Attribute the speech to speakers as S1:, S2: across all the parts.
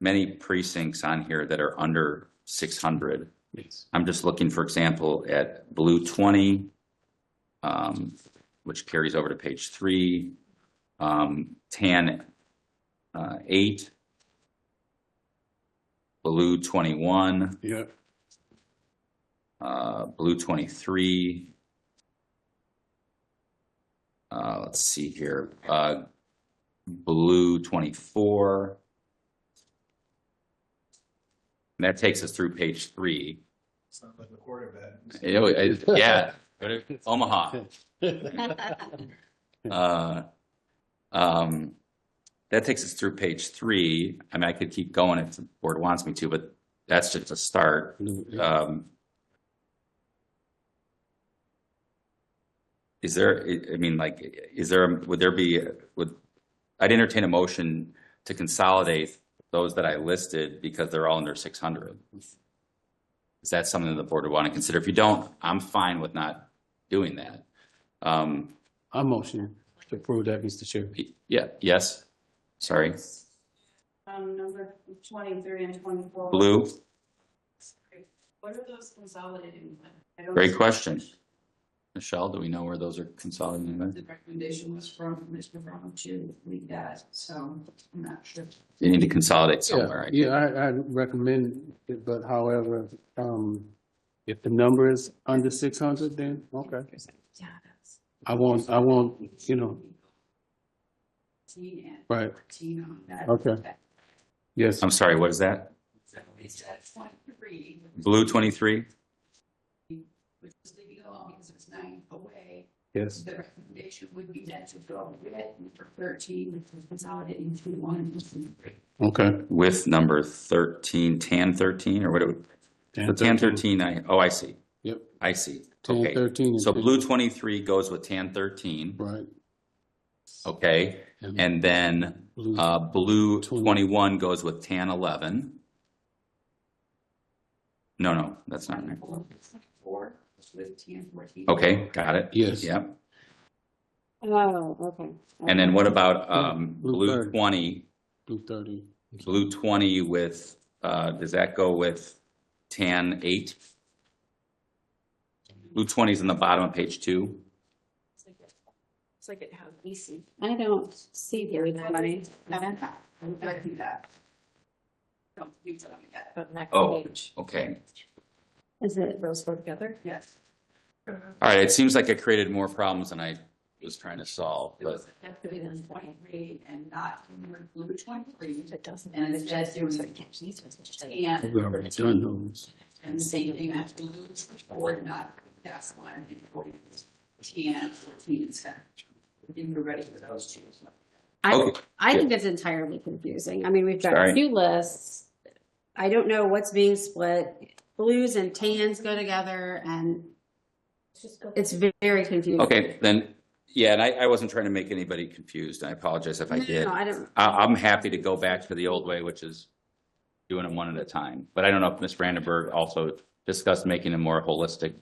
S1: many precincts on here that are under six hundred.
S2: Yes.
S1: I'm just looking, for example, at blue twenty, um, which carries over to page three, um, tan, uh, eight, blue twenty-one,
S2: Yeah,
S1: uh, blue twenty-three. Uh, let's see here, uh, blue twenty-four. And that takes us through page three.
S3: Sounds like a quarterback.
S1: It al- it- Yeah, Oh, Omaha. Uh, um, that takes us through page three. I mean, I could keep going if the board wants me to, but that's just a start. Um, Is there, I- I mean, like, is there, would there be, would, I'd entertain a motion to consolidate those that I listed because they're all under six hundred. Is that something the board would want to consider? If you don't, I'm fine with not doing that. Um,
S2: I motion to approve that, Mr. Chair.
S1: y- yeah, yes, sorry,
S4: Um, number twenty-three and twenty-four.
S1: blue,
S4: What are those consolidating? with? I don't
S1: great
S4: see
S1: question. Michelle, do we know where those are consolidated?
S4: what The recommendation was from Mr. Brown to leave that, so I'm not sure.
S1: You need to consolidate somewhere, I
S2: Yeah, yeah, I, I recommend it, but however, um, if the number is under six hundred, then, okay.
S4: Yeah, that's.
S2: I won't, I won't, you know,
S4: Fourteen and
S2: right,
S4: fourteen on that.
S2: okay. Yes,
S1: I'm sorry, what is that?
S4: So it's at twenty-three,
S1: Blue twenty-three?
S4: which is leaving alone because it's nine away.
S2: yes,
S4: The recommendation would be that to go with number thirteen, which is consolidating to one.
S2: okay.
S1: With number thirteen, tan thirteen, or what, it- the tan thirteen, I, oh, I see.
S2: Yep.
S1: I see,
S2: Ten
S1: okay.
S2: thirteen is
S1: So
S2: good.
S1: blue twenty-three goes with tan thirteen,
S2: Right.
S1: okay? And then,
S2: blue-
S1: uh, blue
S2: Twenty.
S1: twenty-one goes with tan eleven. No, no, that's not right.
S4: Four, with ten fourteen.
S1: Okay, got it.
S2: Yes.
S1: Yep.
S4: Oh, okay.
S1: And then what about, um,
S2: Blue
S1: blue
S2: third.
S1: twenty,
S2: Blue thirty,
S1: blue twenty with, uh, does that go with tan eight? Blue twenty's in the bottom of page two.
S4: It's like it has EC. I don't see very that money. I see that. Don't you tell me that.
S5: But next
S1: Oh.
S5: page.
S1: Okay.
S5: Is it? Those go together?
S4: Yes.
S1: All right, it seems like it created more problems than I was trying to solve,
S4: It
S1: but
S4: was effective in twenty-three and not in the blue twenty-three.
S5: It doesn't.
S4: And it says it was- And,
S2: we already done those.
S4: and the same thing, that's blue or not, that's one. Ten, fourteen, and seven. And we're ready for those two.
S5: I,
S1: Okay.
S5: I think it's entirely confusing. I mean, we've got
S1: Sorry.
S5: a few lists. I don't know what's being split. Blues and tans go together and it's very confusing.
S1: okay, then, yeah, and I, I wasn't trying to make anybody confused. I apologize if I
S5: No,
S1: did.
S5: I
S1: I,
S5: don't,
S1: I'm happy to go back to the old way, which is doing them one at a time. But I don't know if Ms. Brandenburg also discussed making them more holistic.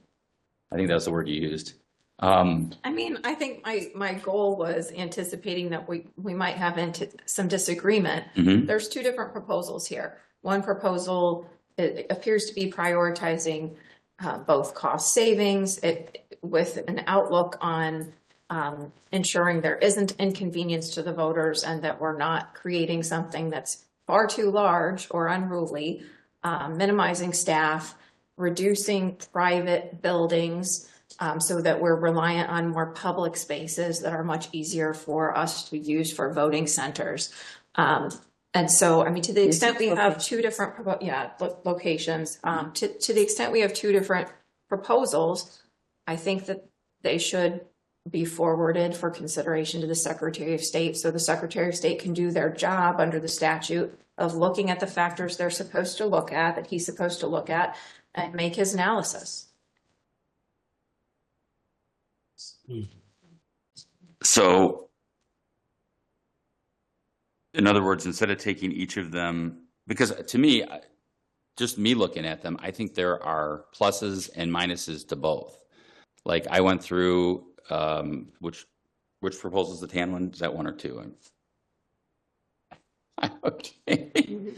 S1: I think that was the word you used. Um,
S6: I mean, I think my, my goal was anticipating that we, we might have into some disagreement.
S1: mhm,
S6: There's two different proposals here. One proposal, it appears to be prioritizing uh, both cost savings it, with an outlook on um, ensuring there isn't inconvenience to the voters and that we're not creating something that's far too large or unruly, uh, minimizing staff, reducing private buildings um, so that we're reliant on more public spaces that are much easier for us to use for voting centers. Um, and so, I mean, to the extent we have two different, propo- yeah, lo- locations, um, to, to the extent we have two different proposals, I think that they should be forwarded for consideration to the Secretary of State. So the Secretary of State can do their job under the statute of looking at the factors they're supposed to look at, that he's supposed to look at, and make his analysis.
S1: So, in other words, instead of taking each of them, because to me, I- just me looking at them, I think there are pluses and minuses to both. Like I went through, um, which, which proposals the tan one? Is that one or two? I'm- Okay.